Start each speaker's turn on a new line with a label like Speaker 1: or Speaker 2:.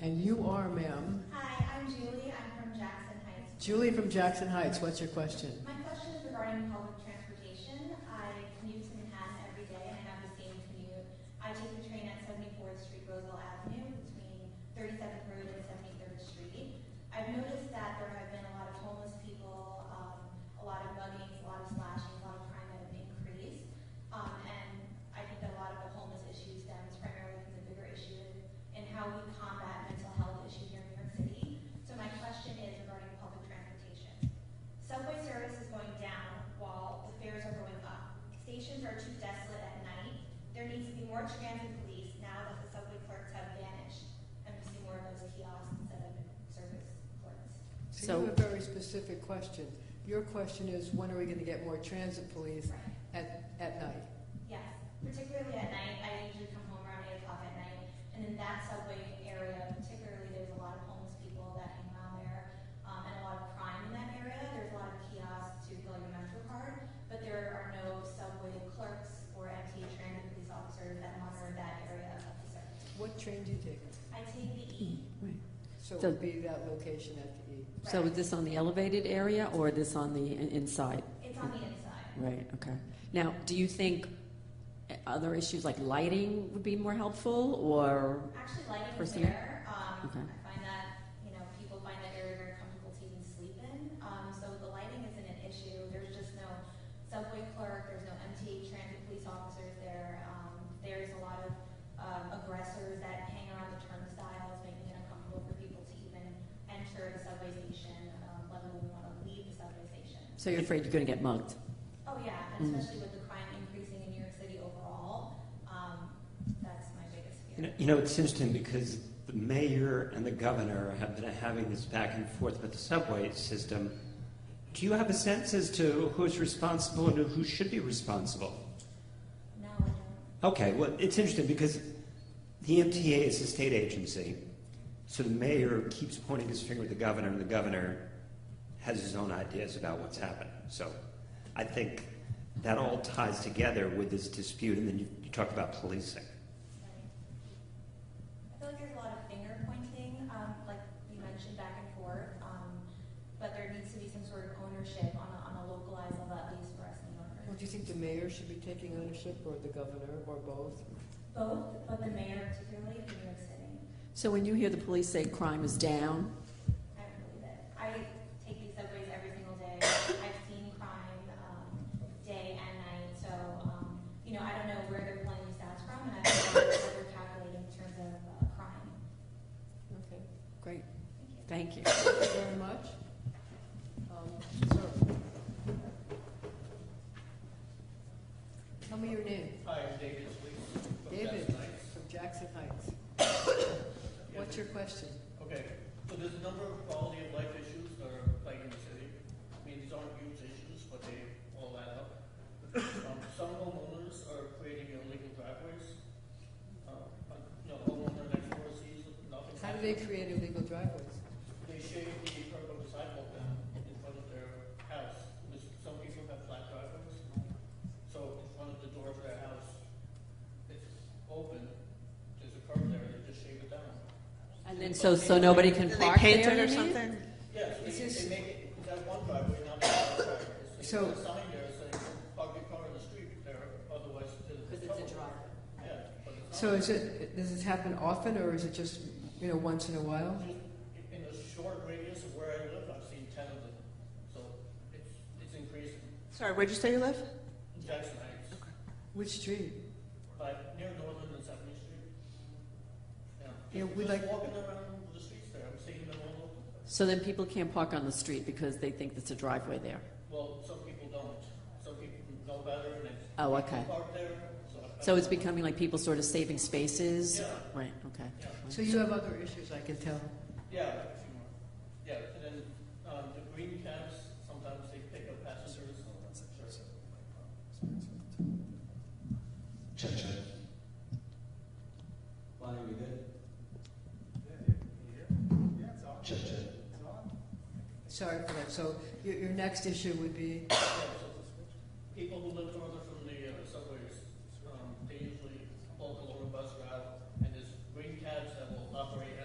Speaker 1: And you are, ma'am,
Speaker 2: Hi, I'm Julie. I'm from Jackson Heights.
Speaker 1: Julie from Jackson Heights. What's your question?
Speaker 2: My question is regarding public transportation. I commute to Manhattan every day and I have the same commute. I take the train at 74th Street Roosevelt Avenue between 37th Road and 73rd Street. I've noticed that there have been a lot of homeless people, um, a lot of muggings, a lot of slashings, a lot of crime that have increased. Um, and I think that a lot of the homeless issue stems primarily from the bigger issue in, in how we combat mental health issues here in New York City. So my question is regarding public transportation. Subway service is going down while the fares are going up. Stations are too desolate at night. There needs to be more transit police now that the subway clerks have vanished. And we see more of those kiosks instead of service clerks.
Speaker 1: So
Speaker 3: So-
Speaker 1: you have a very specific question. Your question is, when are we going to get more transit police
Speaker 2: Right.
Speaker 1: at, at night?
Speaker 2: Yes, particularly at night. I usually come home around eight o'clock at night, and in that subway area, particularly, there's a lot of homeless people that hang around there, um, and a lot of crime in that area. There's a lot of kiosks to fill your MetroCard, but there are no subway clerks or MTA trained police officers that monitor that area of the subway.
Speaker 1: What train do you take?
Speaker 2: I take the E.
Speaker 1: So it
Speaker 3: So-
Speaker 1: would be that location at the E.
Speaker 3: So is this on the elevated area or this on the in- inside?
Speaker 2: It's on the inside.
Speaker 3: Right, okay. Now, do you think other issues like lighting would be more helpful or,
Speaker 2: Actually, lighting is
Speaker 3: Personnel?
Speaker 2: there. Um,
Speaker 3: Okay.
Speaker 2: I find that, you know, people find that area very comfortable to even sleep in. Um, so the lighting isn't an issue. There's just no subway clerk, there's no MTA transit police officers there. Um, there's a lot of um, aggressors that hang around the turnstiles, making it uncomfortable for people to even enter the subway station, um, let alone want to leave the subway station.
Speaker 3: so you're afraid you're going to get mugged?
Speaker 2: Oh, yeah, and
Speaker 3: Mm.
Speaker 2: especially with the crime increasing in New York City overall, um, that's my biggest
Speaker 4: You know,
Speaker 2: fear.
Speaker 4: you know, it's interesting because the mayor and the governor have been having this back and forth with the subway system. Do you have a sense as to who's responsible and who should be responsible?
Speaker 2: No, I don't.
Speaker 4: Okay, well, it's interesting because the MTA is a state agency, so the mayor keeps pointing his finger at the governor, and the governor has his own ideas about what's happened. So I think that all ties together with this dispute, and then you, you talked about policing.
Speaker 2: I feel like there's a lot of finger pointing, um, like you mentioned, back and forth, um, but there needs to be some sort of ownership on a, on a localized level, at least for us in New
Speaker 1: Well,
Speaker 2: Yorkers.
Speaker 1: do you think the mayor should be taking ownership, or the governor, or both?
Speaker 2: Both, but the mayor particularly for New York City,
Speaker 3: So when you hear the police say crime is down,
Speaker 2: I don't believe it. I take these subways every single day. I've seen crime, um, day and night, so, um, you know, I don't know where they're pulling these stats from, and I don't know what they're calculating in terms of, uh, crime.
Speaker 1: Okay,
Speaker 3: great,
Speaker 2: Thank you.
Speaker 3: thank you.
Speaker 1: thank you very much. Um, sir. Tell me your name,
Speaker 5: Hi, I'm David Sweet. from
Speaker 1: David.
Speaker 5: Jackson Heights.
Speaker 1: from Jackson Heights. What's your question?
Speaker 5: Okay, so there's a number of quality of life issues that are plaguing the city. I mean, these aren't huge issues, but they all add up. Um, Some homeowners are creating illegal driveways. Uh, like, You know, the homeowner next door sees nothing.
Speaker 1: How do they create illegal driveways?
Speaker 5: They shave the curb of the sidewalk down in front of their house. Because Some people have flat driveways. So in front of the door of their house, it's open, there's a curb there, they just shave it down.
Speaker 3: And then, so, so nobody can park there,
Speaker 6: paint it
Speaker 3: you
Speaker 6: or
Speaker 3: mean?
Speaker 6: something?
Speaker 5: Yes,
Speaker 1: Is
Speaker 5: they,
Speaker 1: this-
Speaker 5: they make it, that one driveway, not the other driveway.
Speaker 1: So-
Speaker 5: There's a sign there saying, park your car in the street there, otherwise there's.
Speaker 3: Because it's a driveway.
Speaker 5: Yeah, but it's not.
Speaker 1: So is it, does this happen often, or is it just, you know, once in a while?
Speaker 5: Just In a short radius of where I live, I've seen ten of them, so it's, it's increasing.
Speaker 6: Sorry, where'd you say you live?
Speaker 5: Jackson Heights,
Speaker 1: Which street?
Speaker 5: but near Northern and Seventy Street. Yeah.
Speaker 1: Yeah, we
Speaker 5: Just
Speaker 1: like-
Speaker 5: Walking around the streets there, I'm seeing them all over.
Speaker 3: So then people can't park on the street because they think there's a driveway there?
Speaker 5: Well, some people don't, some people know better and they
Speaker 3: Oh, okay.
Speaker 5: park there, so. I-
Speaker 3: So it's becoming like people sort of saving spaces?
Speaker 5: Yeah.
Speaker 3: Right, okay.
Speaker 5: Yeah.
Speaker 1: So you have other issues, I can tell.
Speaker 5: Yeah, a few more. Yeah, and then, um, the green cabs, sometimes they pick up passengers. Sure.
Speaker 7: Check, check. Lonnie, we good? Check, check.
Speaker 1: Sorry for that. So your, your next issue would be,
Speaker 5: People who live on uh, um,